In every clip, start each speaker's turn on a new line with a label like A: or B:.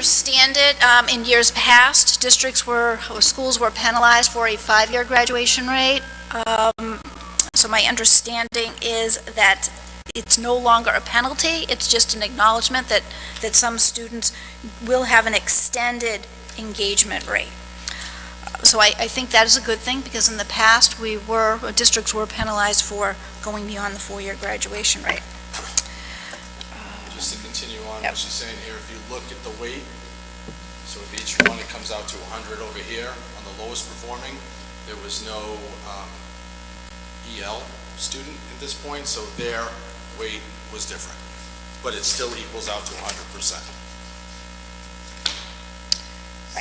A: understand it, um, in years past, districts were, or schools were penalized for a five-year graduation rate. Um, So my understanding is that it's no longer a penalty, it's just an acknowledgement that, that some students will have an extended engagement rate. So I, I think that is a good thing, because in the past, we were, uh, districts were penalized for going beyond the four-year graduation rate.
B: Just to continue on
A: Yep.
B: what she's saying here, if you look at the weight, so with each one, it comes out to 100 over here on the lowest performing. There was no um, EL student at this point, so their weight was different. But it still equals out to 100%.
A: Right,
C: So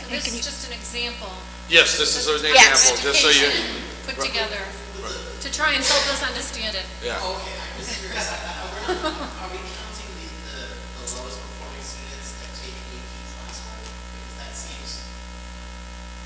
A: and
C: this
A: can
C: is
A: you-
C: just an example.
B: Yes, this is an
A: Yes.
B: example, just so you,
C: education Put together to try and help us understand it.
B: yeah.
D: Okay, I'm just curious, are we, are we counting the, the the lowest performing students that take AP classified? Because that seems,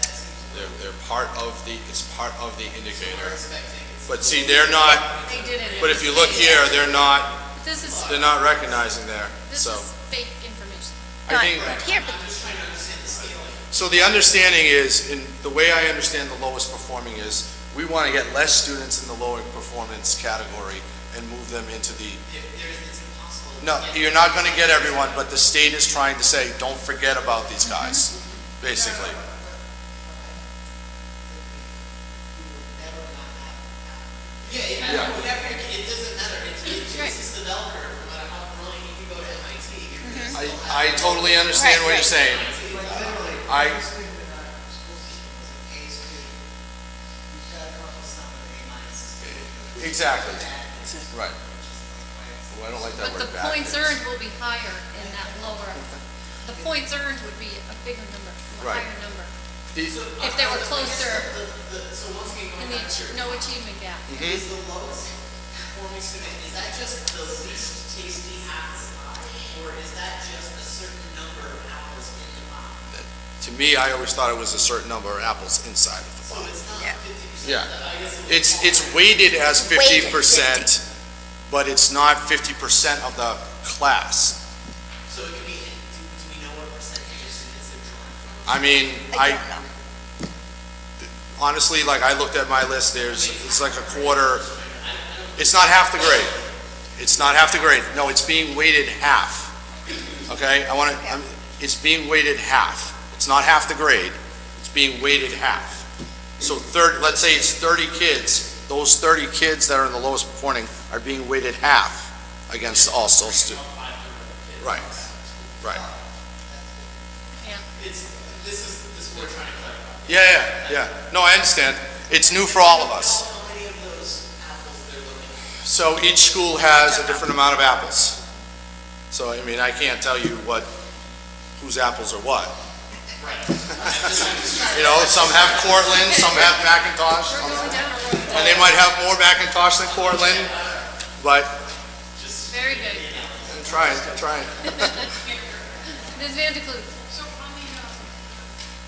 D: that seems.
B: They're, they're part of the, it's part of the
D: We're
B: indicator.
D: expecting it's.
B: But see, they're not,
C: They did it.
B: but if you look here, they're not,
C: This is,
B: they're not recognizing there,
C: this
B: so.
C: is fake information.
B: I think,
A: Not Here, but
D: I'm trying to understand the scaling.
B: So the understanding is, and the way I understand the lowest performing is, we want to get less students in the lower performance category and move them into the,
D: There, there is, it's impossible. to
B: no,
D: get-
B: you're not going to get everyone, but the state is trying to say, don't forget about these guys, basically.
D: We will never not have. Yeah,
B: Yeah.
D: yeah, whatever, it doesn't matter, it's, it's
C: Right.
D: just the bell curve, no matter how brilliant you can go to MIT, you're gonna
B: I,
D: still have.
B: I totally understand what you're saying.
D: Like literally.
B: I-
D: the first thing that I was supposed to do was an A student. You've got to come up with something A minus is good.
B: Exactly. Right. Oh, I don't like that
C: But
B: word
C: the
B: back.
C: points earned will be higher in that lower. The points earned would be a bigger number, a
B: Right.
C: higher number.
B: The-
C: If they were closer
D: The, the, so once again,
C: in
D: going
C: the
D: back to,
C: ach- no achievement gap.
D: is the lowest performing student, is that just the least tasty ass? Or is that just a certain number of hours in the box?
B: To me, I always thought it was a certain number of apples inside of the
D: So
B: box.
D: it's not
A: Yeah.
D: fifty percent.
B: Yeah. It's, it's weighted as fifty
A: Weighted
B: percent, but it's not fifty percent of the class.
D: So it could be, do, do we know what percentage of students they're drawing from?
B: I mean,
A: I
B: I,
A: don't know.
B: honestly, like, I looked at my list, there's, it's like a quarter, it's not half the grade. It's not half the grade, no, it's being weighted half, okay? I wanna, I'm, it's being weighted half. It's not half the grade, it's being weighted half. So third, let's say it's thirty kids, those thirty kids that are in the lowest performing are being weighted half against all students. Right, right.
C: Yeah.
D: It's, this is, this is what we're trying to clarify.
B: Yeah, yeah, yeah. No, I understand. It's new for all of us.
D: How many of those apples they're looking at?
B: So each school has a different amount of apples. So, I mean, I can't tell you what, whose apples are what. You know, some have Cortland, some have Macintosh,
C: We're going down a road.
B: and they might have more Macintosh than Cortland, but
C: Very good.
B: I'm trying, I'm trying.
C: Ms. Van de Kloot,
E: So on the uh,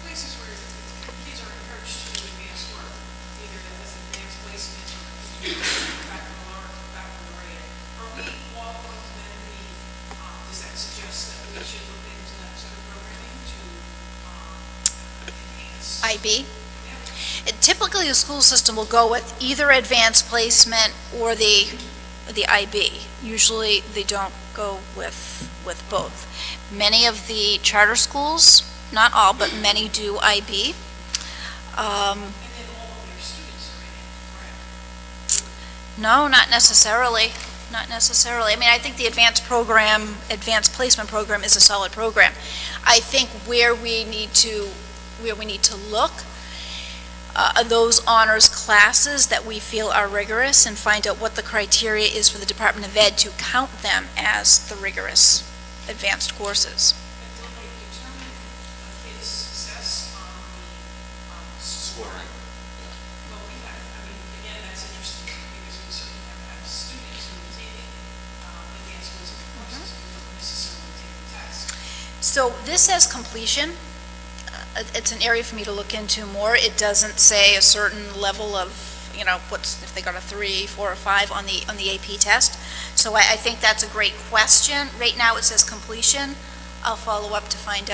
E: places where kids are encouraged to do advanced work, either in this advanced placement or back in the lower, back in the red, are we all going to then be, um, does that suggest that we should look into that sort of programming to um,
A: IB.
E: enhance?
A: Typically, the school system will go with either advanced placement or the, the IB. Usually, they don't go with, with both. Many of the charter schools, not all, but many do IB. Um,
E: And then all of their students are in it, correct?
A: No, not necessarily, not necessarily. I mean, I think the advanced program, advanced placement program is a solid program. I think where we need to, where we need to look, uh, are those honors classes that we feel are rigorous and find out what the criteria is for the Department of Ed to count them as the rigorous advanced courses.
E: But don't they determine a kid's success on the um,
B: Scoring.
E: Well, we have, I mean, again, that's interesting because we certainly have, have students who are taking um, advanced placement courses who don't necessarily take the test.
A: So this says completion. Uh, It's an area for me to look into more. It doesn't say a certain level of, you know, what's, if they got a three, four, or five on the, on the AP test. So I, I think that's a great question. Right now, it says completion. I'll follow up to find out.